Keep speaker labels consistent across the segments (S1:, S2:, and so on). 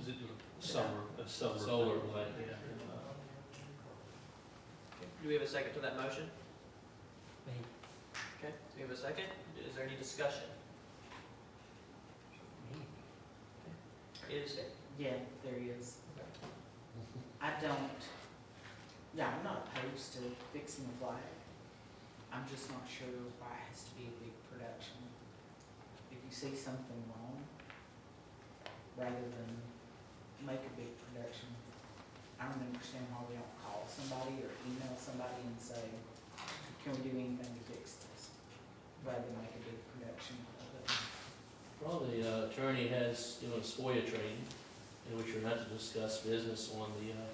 S1: is it summer, a summer?
S2: Solar
S1: thing,
S2: plant.
S1: yeah.
S3: Do we have a second to that motion?
S4: Me.
S3: Okay, we have a second. Is there any discussion? Is,
S4: Yeah, there is. I don't, yeah, I'm not opposed to fixing the flag. I'm just not sure why it has to be a big production. If you see something wrong, rather than make a big production, I don't understand why we don't call somebody or email somebody and say, can we do anything to fix this? Rather than make a big production of it.
S2: Well, the uh, attorney has, you know, a SPOIA training, in which you're not to discuss business on the uh,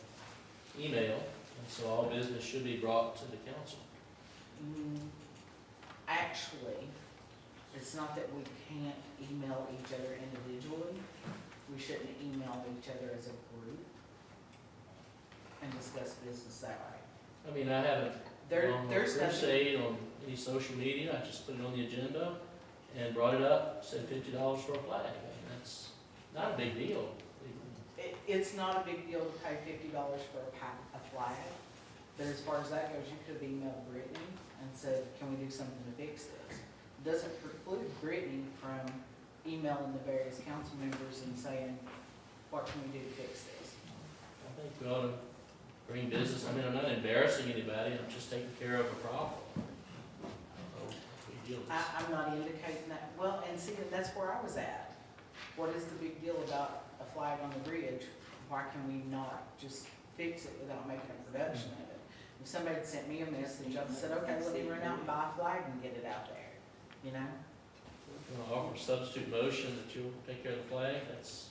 S2: email, and so all business should be brought to the council.
S4: Mm, Actually, it's not that we can't email each other individually. We shouldn't email each other as a group and discuss business that way.
S2: I mean, I haven't
S4: There,
S2: gone on a
S4: there's nothing,
S2: crusade on any social media, I just put it on the agenda and brought it up, said fifty dollars for a flag, and that's not a big deal.
S4: it, it's not a big deal to pay fifty dollars for a pa, a flag. But as far as that goes, you could have emailed Brittany and said, can we do something to fix this? Doesn't preclude Brittany from emailing the various council members and saying, what can we do to fix this?
S2: I think we ought to bring business, I mean, I'm not embarrassing anybody, I'm just taking care of a problem. I don't know if we deal with
S4: I,
S2: this.
S4: I'm not indicating that, well, and see, that's where I was at. What is the big deal about a flag on the bridge? Why can we not just fix it without making a production of it? If somebody had sent me a message, I'd have said, okay, let me run out and buy a flag and get it out there, you know?
S2: You want to offer a substitute motion that you'll take care of the flag, that's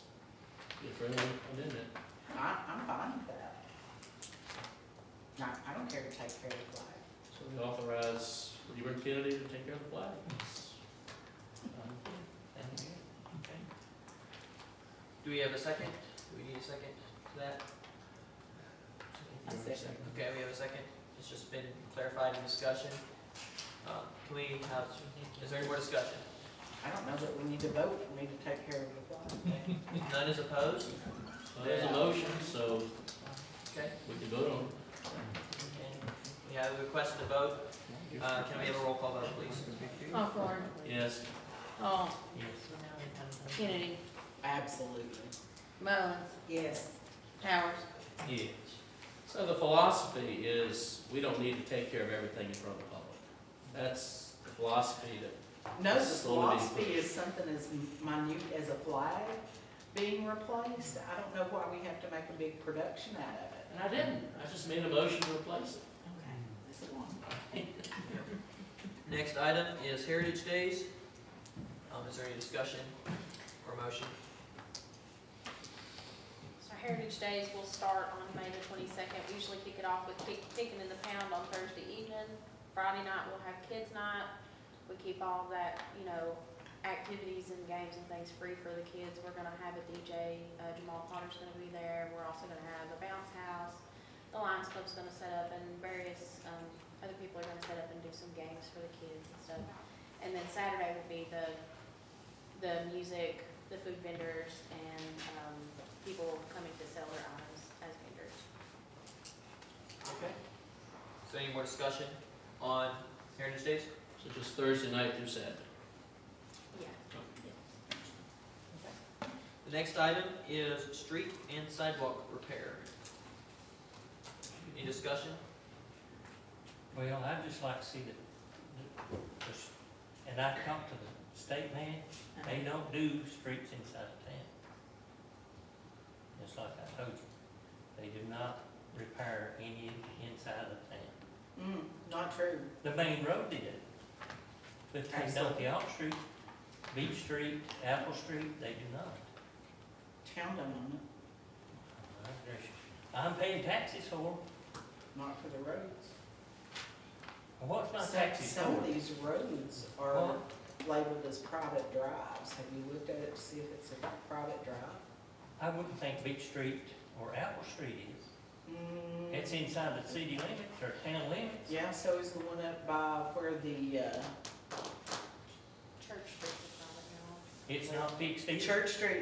S2: be a friendly amendment.
S4: I, I'm fine with that. No, I don't care to take care of the flag.
S2: So we authorize Reverend Kennedy to take care of the flag. That's, um, and-
S3: do we have a second? Do we need a second to that?
S4: I second.
S3: Okay, we have a second. It's just been clarified in discussion. Uh, Can we have, is there any more discussion?
S4: I don't know that we need to vote for me to take care of the flag.
S3: Okay. If None is opposed?
S2: So uh, there's a motion, so
S3: Okay,
S2: we can vote on
S3: and we have a request to vote. Uh, Can we have a roll call vote, please?
S5: Hawthorne,
S2: it. Yes.
S5: Hall, oh, Kennedy,
S4: Absolutely.
S5: Mullins,
S4: Yes.
S5: Powers.
S2: Yes. So the philosophy is, we don't need to take care of everything in front of the public. That's the philosophy that
S4: No, the
S2: Slowly being
S4: philosophy
S2: pushed.
S4: is something as minute as a flag being replaced. I don't know why we have to make a big production out of it.
S2: And I didn't, I just made a motion to replace it.
S4: Okay, that's a one.
S3: Next item is Heritage Days. Um, Is there any discussion or motion?
S6: So Heritage Days will start on May the twenty-second. We usually kick it off with kick- kicking in the pound on Thursday evening. Friday night, we'll have kids' night. We keep all that, you know, activities and games and things free for the kids. We're gonna have a DJ, uh, Jamal Potter's gonna be there. We're also gonna have a bounce house. The Lions Club's gonna set up and various, um, other people are gonna set up and do some games for the kids and stuff. And then Saturday will be the, the music, the food vendors, and, um, people coming to sell their items as vendors.
S3: Okay. Is there any more discussion on Heritage Days?
S2: So just Thursday night through Saturday.
S6: Yeah.
S3: The next item is street and sidewalk repair. Any discussion?
S7: Well, I'd just like to see the, the- the s- and I talked to the state man, they don't do streets inside of town. Just like I told you, they do not repair any inside of town.
S4: Mm, not true.
S7: The main road did, but they don't the off street, Beach Street, Apple Street, they do not.
S4: Town done on it,
S7: My gracious. I'm paying taxes for, 'em.
S4: not for the roads.
S7: what's my
S4: So-
S7: taxes
S4: Some of
S7: for?
S4: these roads are labeled as private drives. Have you looked at it to see if it's a private drive?
S7: I wouldn't think Beach Street or Apple Street is.
S4: Mm,
S7: It's inside the city limits or town limits.
S4: Yeah, so is the one up by where the, uh,
S6: Church Street's a private, you
S7: It's not fixed either.
S4: Church Street